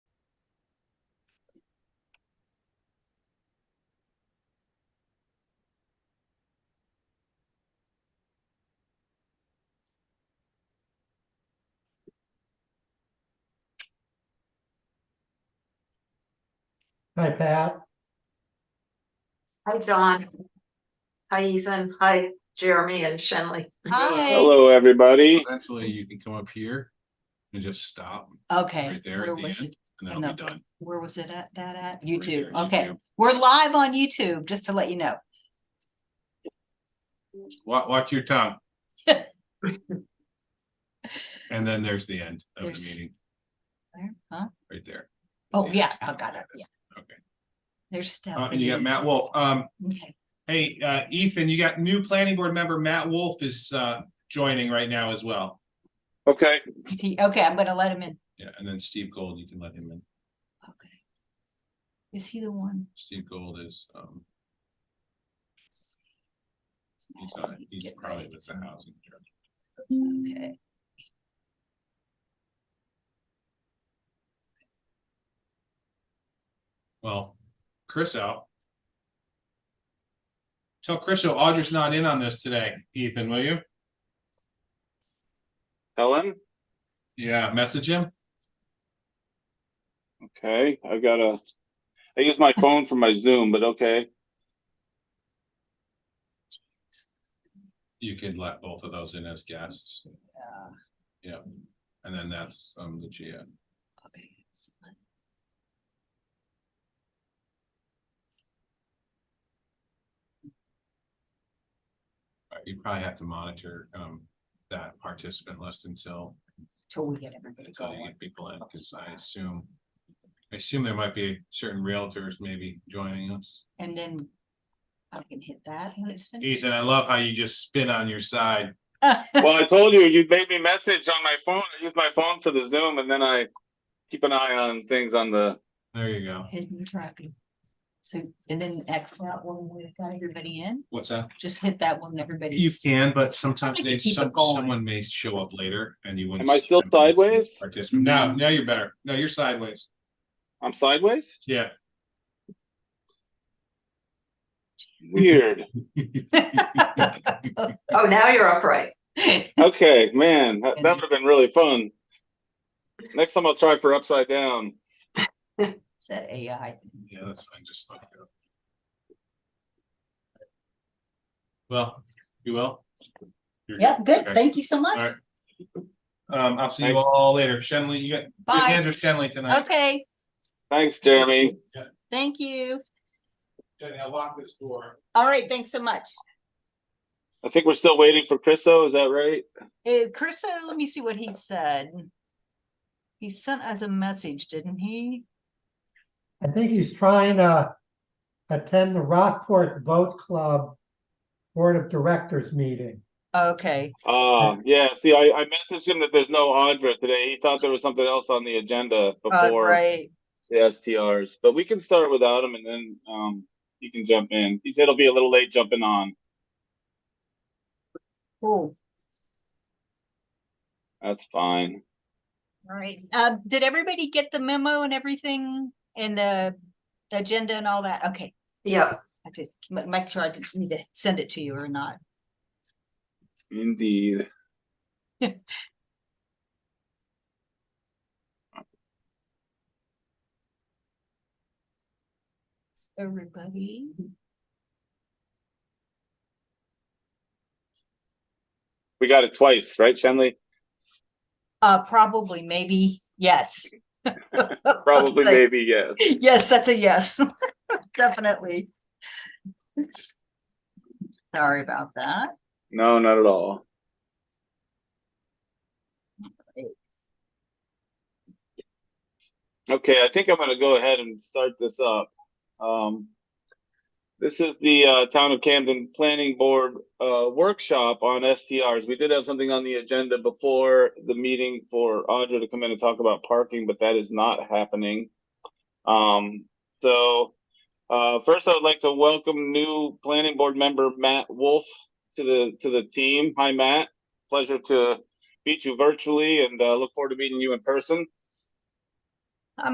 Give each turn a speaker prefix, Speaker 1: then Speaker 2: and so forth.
Speaker 1: Hi, Pat.
Speaker 2: Hi, John. Hi, Ethan. Hi, Jeremy and Shenley.
Speaker 3: Hi,
Speaker 4: Hello, everybody.
Speaker 5: Eventually, you can come up here and just stop
Speaker 3: okay,
Speaker 5: right there
Speaker 3: where
Speaker 5: at the
Speaker 3: was
Speaker 5: end,
Speaker 3: it?
Speaker 5: and
Speaker 3: in
Speaker 5: then I'll be
Speaker 3: the-
Speaker 5: done.
Speaker 3: where was it at, that at?
Speaker 5: Right
Speaker 3: YouTube,
Speaker 5: there,
Speaker 3: okay,
Speaker 5: YouTube.
Speaker 3: we're live on YouTube, just to let you know.
Speaker 5: Wa- watch your tongue. And then there's the end of the
Speaker 3: There's-
Speaker 5: meeting,
Speaker 3: Where, huh?
Speaker 5: right there.
Speaker 3: Oh, yeah, I
Speaker 5: I
Speaker 3: got it, yeah.
Speaker 5: Okay.
Speaker 3: There's
Speaker 5: Uh,
Speaker 3: Stephanie.
Speaker 5: and you got Matt Wolf. Um,
Speaker 3: Okay,
Speaker 5: hey, uh, Ethan, you got new planning board member Matt Wolf is, uh, joining right now as well.
Speaker 4: Okay,
Speaker 3: is he, okay, I'm gonna let him in,
Speaker 5: Yeah, and then Steve Gold, you can let him in.
Speaker 3: okay. Is he the one?
Speaker 5: Steve Gold is, um,
Speaker 3: Let's see. It's
Speaker 5: he's,
Speaker 3: Matt,
Speaker 5: not- he's
Speaker 3: Oh, getting
Speaker 5: probably
Speaker 3: ready.
Speaker 5: with the housing. director.
Speaker 3: Okay.
Speaker 5: Well, Chris out. Tell Chris, Audra's not in on this today, Ethan, will you?
Speaker 4: Helen.
Speaker 5: Yeah, message him.
Speaker 4: Okay, I gotta, I use my phone for my Zoom, but okay.
Speaker 5: You can let both of those in as guests.
Speaker 3: Yeah,
Speaker 5: Yeah. And then that's, um, the GM.
Speaker 3: okay. excellent.
Speaker 5: Uh, You probably have to monitor, um, that participant list until,
Speaker 3: Till we get everybody
Speaker 5: until you
Speaker 3: going.
Speaker 5: get people in, because I assume. I assume there might be certain realtors maybe joining us.
Speaker 3: And then I can hit that when it's finished.
Speaker 5: Ethan, I love how you just spin on your side.
Speaker 4: Well, I told you, you made me message on my phone. I use my phone for the Zoom and then I keep an eye on things on the,
Speaker 5: There you go.
Speaker 3: Hidden tracking. So, and then X out one, we've got everybody in,
Speaker 5: What's that?
Speaker 3: just hit that one,
Speaker 5: You
Speaker 3: everybody's.
Speaker 5: can, but sometimes
Speaker 3: Somebody
Speaker 5: they,
Speaker 3: keep it
Speaker 5: some,
Speaker 3: going.
Speaker 5: someone may show up later and you wouldn't.
Speaker 4: Am I
Speaker 5: see
Speaker 4: still
Speaker 5: them unless you
Speaker 4: sideways?
Speaker 5: participate. No, now you're better. No, you're sideways.
Speaker 4: I'm sideways?
Speaker 5: Yeah.
Speaker 4: Weird.
Speaker 2: Oh, now you're upright.
Speaker 4: Okay, man, that would have been really fun. Next time I'll try for upside down.
Speaker 3: Said AI.
Speaker 5: Yeah, that's fine. Just look it up. Well, you will? You're
Speaker 3: Yep, good,
Speaker 5: Okay.
Speaker 3: thank you so
Speaker 5: All
Speaker 3: much.
Speaker 5: right. Um, I'll see you
Speaker 4: Thanks.
Speaker 5: all later. Shenley, you got, your
Speaker 3: Bye,
Speaker 5: hands with Shenley tonight.
Speaker 3: okay,
Speaker 4: Thanks, Jeremy.
Speaker 3: thank you.
Speaker 5: Jenny, I locked this door.
Speaker 3: All right, thanks so much.
Speaker 4: I think we're still waiting for Chris, though, is that right?
Speaker 3: Is Chris, uh, let me see what he said. He sent us a message, didn't he?
Speaker 1: I think he's trying to attend the Rockport Boat Club Board of Directors meeting.
Speaker 3: Okay,
Speaker 4: Uh, yeah, see, I, I messaged him that there's no Audra today. He thought there was something else on the agenda
Speaker 3: uh,
Speaker 4: before
Speaker 3: right,
Speaker 4: the STRs, but we can start without him and then, um, you can jump in. He said it'll be a little late jumping on.
Speaker 3: cool,
Speaker 4: That's fine.
Speaker 3: all right. Uh, did everybody get the memo and everything and the agenda and all that? Okay.
Speaker 2: Yeah,
Speaker 3: I did, ma- make sure I didn't need to send it to you or not.
Speaker 4: Indeed.
Speaker 3: Everybody.
Speaker 4: We got it twice, right, Shenley?
Speaker 3: Uh, probably, maybe, yes.
Speaker 4: Probably,
Speaker 3: Like,
Speaker 4: maybe, yes.
Speaker 3: Yes, that's a yes, definitely. Sorry about that.
Speaker 4: No, not at all. Okay, I think I'm gonna go ahead and start this up. Um, this is the uh, Town of Camden Planning Board uh, workshop on STRs. We did have something on the agenda before the meeting for Audra to come in and talk about parking, but that is not happening. Um, so uh, first, I would like to welcome new Planning Board member Matt Wolf to the to the team. Hi, Matt. Pleasure to meet you virtually, and uh, look forward to meeting you in person.